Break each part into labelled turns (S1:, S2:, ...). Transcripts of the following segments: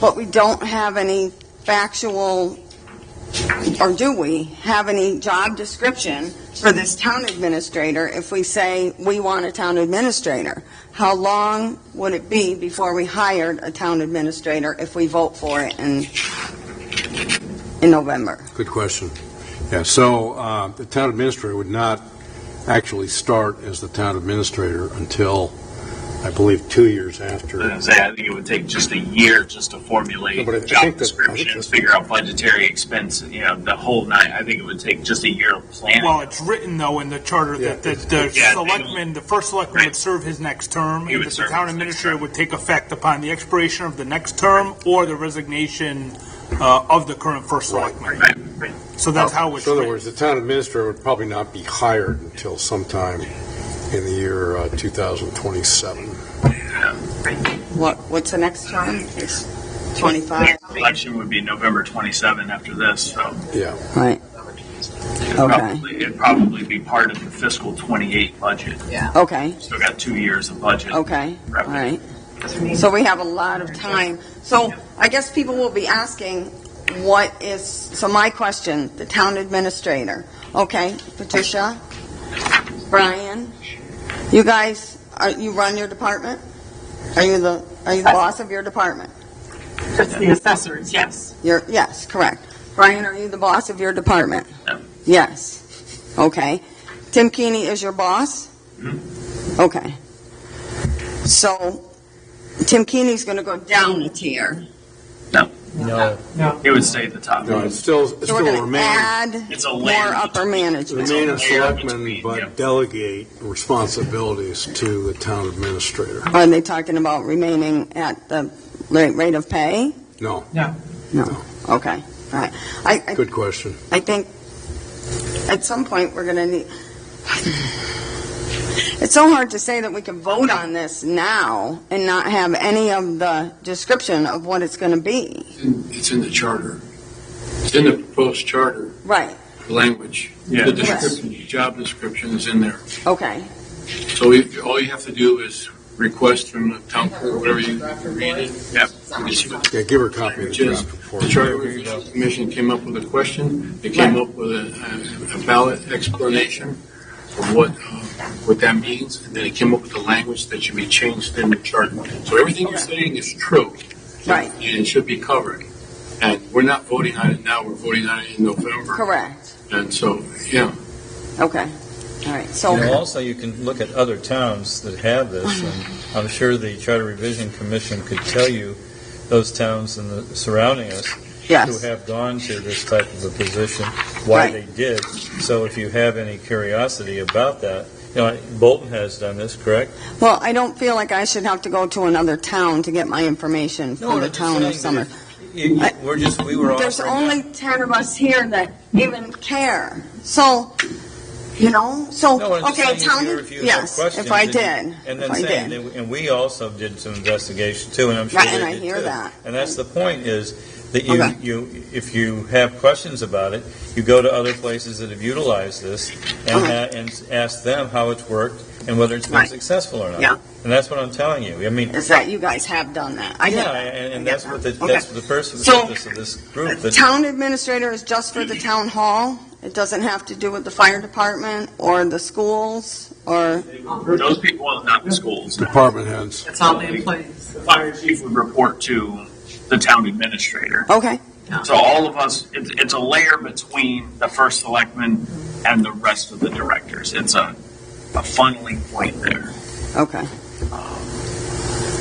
S1: but we don't have any factual, or do we, have any job description for this town administrator if we say we want a town administrator? How long would it be before we hired a town administrator if we vote for it in, in November?
S2: Good question. Yeah, so uh, the town administrator would not actually start as the town administrator until, I believe, two years
S3: I was
S2: after.
S3: gonna say, I think it would take just a year just to
S2: No,
S3: formulate
S2: but I think that-
S3: job
S2: I think
S3: descriptions,
S2: that's-
S3: figure out budgetary expense, you know, the whole nine. I think it would take just a year of planning.
S4: Well, it's written though in the charter that the, the
S3: Yeah.
S4: selectman, the first selectman would
S3: Right.
S4: serve his next term,
S3: He
S4: and
S3: would
S4: that the
S3: serve his
S4: town
S3: next
S4: administrator
S3: term.
S4: would take effect upon the expiration of the next term or the resignation, uh, of the current first selectman.
S3: Right, right.
S4: So that's how it's
S2: So in other
S4: written.
S2: words, the town administrator would probably not be hired until sometime in the year uh, 2027.
S1: What, what's the next term? It's
S3: The
S1: 25?
S3: next Election would be November 27 after this, so.
S2: Yeah.
S1: Right,
S3: it'd probably- It'd probably be part of the fiscal 28 budget.
S1: okay,
S3: Still got two years of budget.
S1: okay, all
S3: Right.
S1: right. So we have a lot of time. So I guess people will be asking, what is, so my question, the town administrator. Okay, Patricia, Brian, you guys, are, you run your department? Are you the, are you the boss of your department?
S5: Just the assessors, yes.
S1: You're, yes, correct. Brian, are you the boss of your department?
S3: No.
S1: Yes. Okay. Tim Keeney is your boss? Okay. So Tim Keeney's going to go down a tier.
S5: No. No.
S3: It would stay at the top.
S2: No, it's still, it's
S1: So we're
S2: still
S1: going to
S2: remain,
S1: add
S3: It's a
S1: more
S3: layer.
S1: upper management.
S2: remain
S3: layer
S2: a selectman,
S3: between, yeah.
S2: but delegate responsibilities to the town administrator.
S1: Are they talking about remaining at the rate rate of pay?
S2: No,
S1: No. Okay. All right. I, I
S2: good question.
S1: I think at some point, we're going to need, it's so hard to say that we can vote on this now and not have any of the description of what it's going to be.
S6: It's in the charter. It's in the proposed charter
S1: Right,
S6: language.
S3: Yeah.
S6: The description, job description is in there.
S1: okay,
S6: So we- all you have to do is request from the town clerk, whatever you read it.
S3: Yep.
S6: You see what
S2: Yeah, give her a copy of the
S6: language is.
S2: draft before.
S6: The Charter Review Commission came up with a question. They came up with a a valid explanation of what, uh, what that means. And then it came up with the language that should be changed in the charter. So everything you're saying is true.
S1: right,
S6: and it should be covered. And we're not voting on it now, we're voting on it in November.
S1: correct,
S6: And so, yeah,
S1: okay, all right, so,
S7: You know, also, you can look at other towns that have
S1: Oh,
S7: this, and I'm sure the Charter Revision Commission could tell you those towns and the surrounding us who
S1: yes,
S7: have gone to this type of a position, why
S1: Right.
S7: they did. So if you have any curiosity about that, you know, Bolton has done this, correct?
S1: well, I don't feel like I should have to go to another town to get my information
S7: No,
S1: from the
S7: I'm just
S1: town of
S7: saying
S1: Summer.
S7: You- you-
S1: I-
S7: We're just, we were
S1: There's
S7: offering that.
S1: only 10 of us here that even care, so, you know, so,
S7: No, I'm just
S1: okay,
S7: saying if
S1: town,
S7: you- if you have
S1: yes,
S7: questions
S1: if I
S7: and you-
S1: did,
S7: And
S1: if
S7: then
S1: I
S7: saying,
S1: did.
S7: that- and we also did some investigation too, and I'm sure
S1: Right,
S7: they
S1: and I
S7: did,
S1: hear
S7: too.
S1: that.
S7: And that's the point is that you,
S1: Okay.
S7: you, if you have questions about it, you go to other places that have utilized this and,
S1: Okay.
S7: ha- and ask them how it's worked and whether it's been
S1: Right.
S7: successful or not.
S1: Yeah.
S7: And that's what I'm telling you. I mean,
S1: is that you guys have done that. I get
S7: yeah,
S1: that.
S7: and, and
S1: I get
S7: that's what the,
S1: that. Okay.
S7: that's the pers-
S1: So-
S7: purpose of this group.
S1: The
S7: That,
S1: town administrator is just for the town hall? It doesn't have to do with the fire department or the schools or,
S3: Those people, well, not the schools.
S2: Department heads.
S5: That's all in place.
S3: The fire chief would report to the town administrator.
S1: okay,
S3: So all of us, it's, it's a layer between the first selectman and the rest of the directors. It's a, a funneling point there.
S1: okay.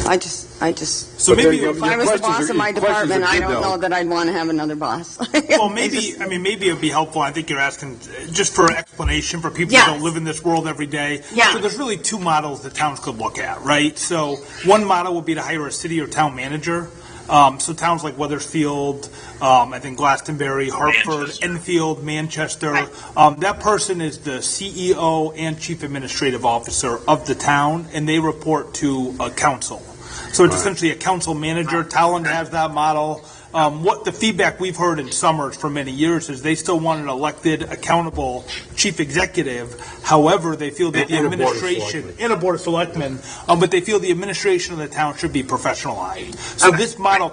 S1: I just, I just,
S4: So
S2: But
S4: maybe,
S2: there you
S1: if
S2: go.
S1: I
S2: Your
S1: was the
S2: questions are-
S1: boss of my
S2: your questions are
S1: department, I
S2: good,
S1: don't
S2: though.
S1: know that I'd want to have another boss.
S4: well,
S1: I
S4: maybe,
S1: just-
S4: I mean, maybe it'd be helpful, I think you're asking, uh, just for explanation for people who
S1: Yes.
S4: don't live in this world every day.
S1: Yeah.
S4: So there's really two models that towns could look at, right? So one model would be to hire a city or town manager. Um, so towns like Weathersfield, um, I think Glastonbury, Hartford,
S3: Manchester.
S4: Enfield, Manchester. Um, that person is the CEO and chief administrative officer of the town, and they report to a council. So it's
S2: Right.
S4: essentially a council manager. Talon has that model. Um, what the feedback we've heard in Summers for many years is they still want an elected, accountable chief executive. However, they feel that the
S2: And- and a board of
S4: administration, and a board of selectmen, um, but they feel the administration of the town should be professionalized. So this model